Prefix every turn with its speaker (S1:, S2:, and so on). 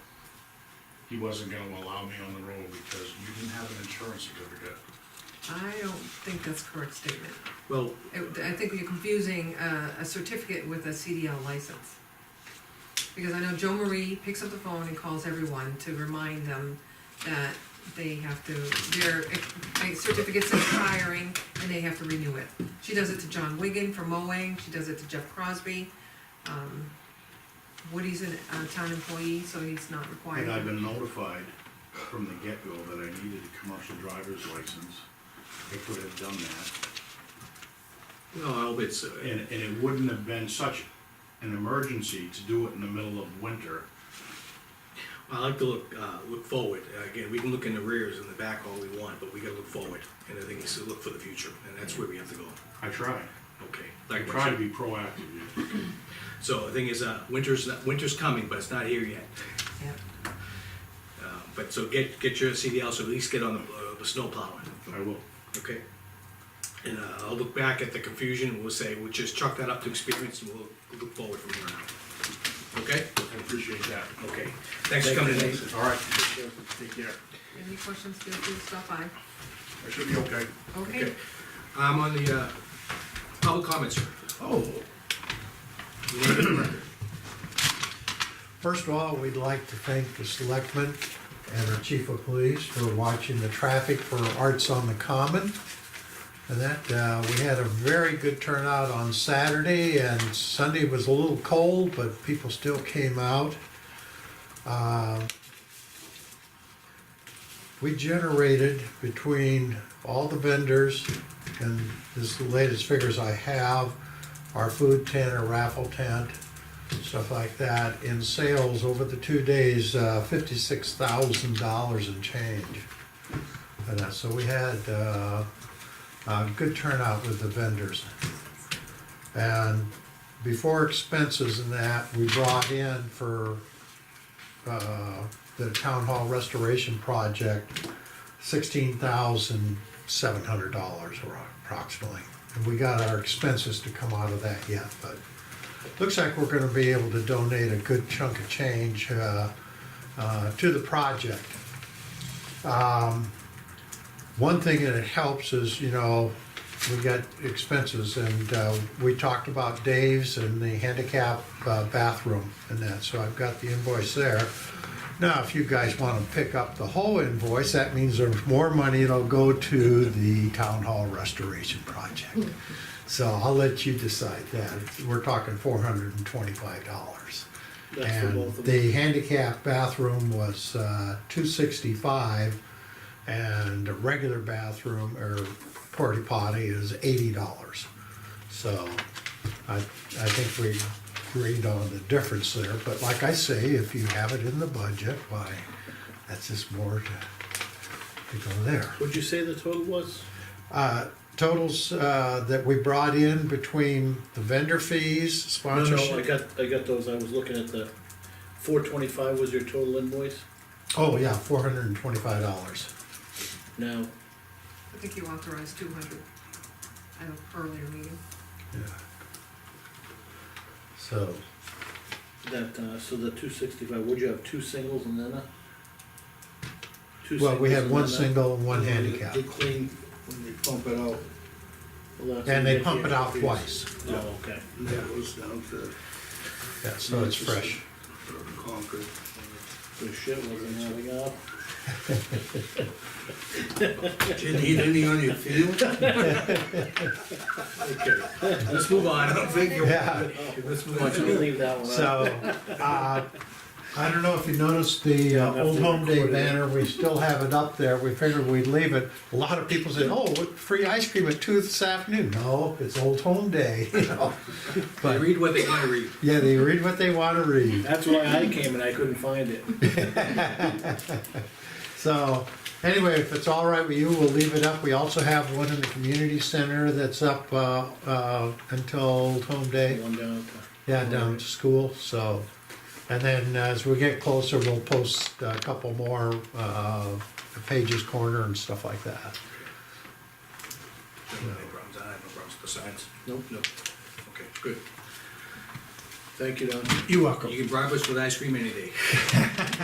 S1: he wasn't gonna allow me on the road because you didn't have an insurance certificate.
S2: I don't think that's a correct statement.
S3: Well,
S2: It- I think you're confusing uh, a certificate with a CDL license. Because I know Joe Marie picks up the phone and calls everyone to remind them that they have to, their eh, certificate's expiring and they have to renew it. She does it to John Wigan for mowing, she does it to Jeff Crosby. Um, Woody's a town employee, so he's not required.
S3: and I've been notified from the get-go that I needed a commercial driver's license. I could have done that,
S4: Well, it's, uh,
S3: and, and it wouldn't have been such an emergency to do it in the middle of winter.
S4: I like to look, uh, look forward. Again, we can look in the rears and the back all we want, but we gotta look forward. And I think it's to look for the future, and that's where we have to go.
S3: I tried,
S4: Okay.
S3: I
S4: Like
S3: tried to be proactive, yeah.
S4: So the thing is, uh, winter's, not- winter's coming, but it's not here yet.
S2: Yeah.
S4: Uh, But so get, get your CDL, so at least get on the, uh, the snow plowing,
S3: I will.
S4: okay? And uh, I'll look back at the confusion, we'll say, we'll just chalk that up to experience, and we'll look forward from here on out. Okay?
S3: I appreciate that.
S4: Okay. Thanks for coming in.
S3: All right. Take care.
S2: Any questions, feel free to stop by.
S3: I should be okay.
S2: Okay,
S4: Okay. I'm on the, uh, public comments here.
S5: Oh,
S4: You wanna get the record?
S5: first of all, we'd like to thank the selectmen and our chief of police for watching the traffic for Arts on the Common. And that, uh, we had a very good turnout on Saturday and Sunday was a little cold, but people still came out. Uh, We generated between all the vendors, and this is the latest figures I have, our food tent, our raffle tent, stuff like that, in sales over the two days, uh, fifty-six thousand dollars in change. And that, so we had, uh, a good turnout with the vendors. And before expenses and that, we brought in for, uh, the town hall restoration project, sixteen thousand seven hundred dollars approximately. And we got our expenses to come out of that yet, but Looks like we're gonna be able to donate a good chunk of change uh, uh, to the project. Um, One thing that it helps is, you know, we got expenses and uh, we talked about Dave's and the handicap uh, bathroom and that, so I've got the invoice there. Now, if you guys wanna pick up the whole invoice, that means there's more money that'll go to the town hall restoration project. So I'll let you decide that. We're talking four hundred and twenty-five dollars. And the handicap bathroom was, uh, two sixty-five and a regular bathroom or porta potty is eighty dollars. So I, I think we agreed on the difference there, but like I say, if you have it in the budget, why, that's just more to, to go there.
S6: Would you say the total was?
S5: Uh, totals uh, that we brought in between the vendor fees,
S6: No, no, I
S5: sponsorship.
S6: got, I got those, I was looking at the, four twenty-five was your total invoice?
S5: Oh, yeah, four hundred and twenty-five dollars.
S6: Now,
S2: I think you authorized two hundred at an earlier meeting.
S5: Yeah. So,
S6: that, uh, so the two sixty-five, would you have two singles and then a? two
S5: well, we
S6: singles
S5: had
S6: and
S5: one
S6: then a-
S5: single and one
S6: They-
S5: handicap,
S6: They clean, when they pump it out, Well, that's
S5: and they
S6: what
S5: pump it out
S6: is.
S5: twice.
S6: Oh, okay,
S7: And that goes down to
S5: Yeah, so it's fresh.
S7: Concord.
S6: the shit wasn't adding up.
S7: Did you eat any on your field?
S4: Let's move on. I don't think you
S5: Yeah.
S4: Let's move
S6: Why
S4: on.
S6: don't you leave that one out?
S5: So, uh, I don't know if you noticed the uh,
S6: Yeah,
S5: Old Home Day
S6: recorded it.
S5: banner, we still have it up there, we figured we'd leave it. A lot of people said, oh, what, free ice cream at two this afternoon, no, it's Old Home Day, you know.
S4: They
S5: But,
S4: read what they wanna read.
S5: yeah, they read what they wanna read.
S6: That's why I came and I couldn't find it.
S5: So, anyway, if it's all right with you, we'll leave it up. We also have one in the community center that's up uh, uh, until Old Home
S6: The
S5: Day.
S6: one down at
S5: Yeah, down to school. So, and then as we get closer, we'll post a couple more uh, pages corner and stuff like that.
S4: No problems, I have no problems besides. Nope. Nope. Okay, good.
S6: the- Thank you, Don.
S5: You're welcome.
S4: You can bribe us with ice cream any day.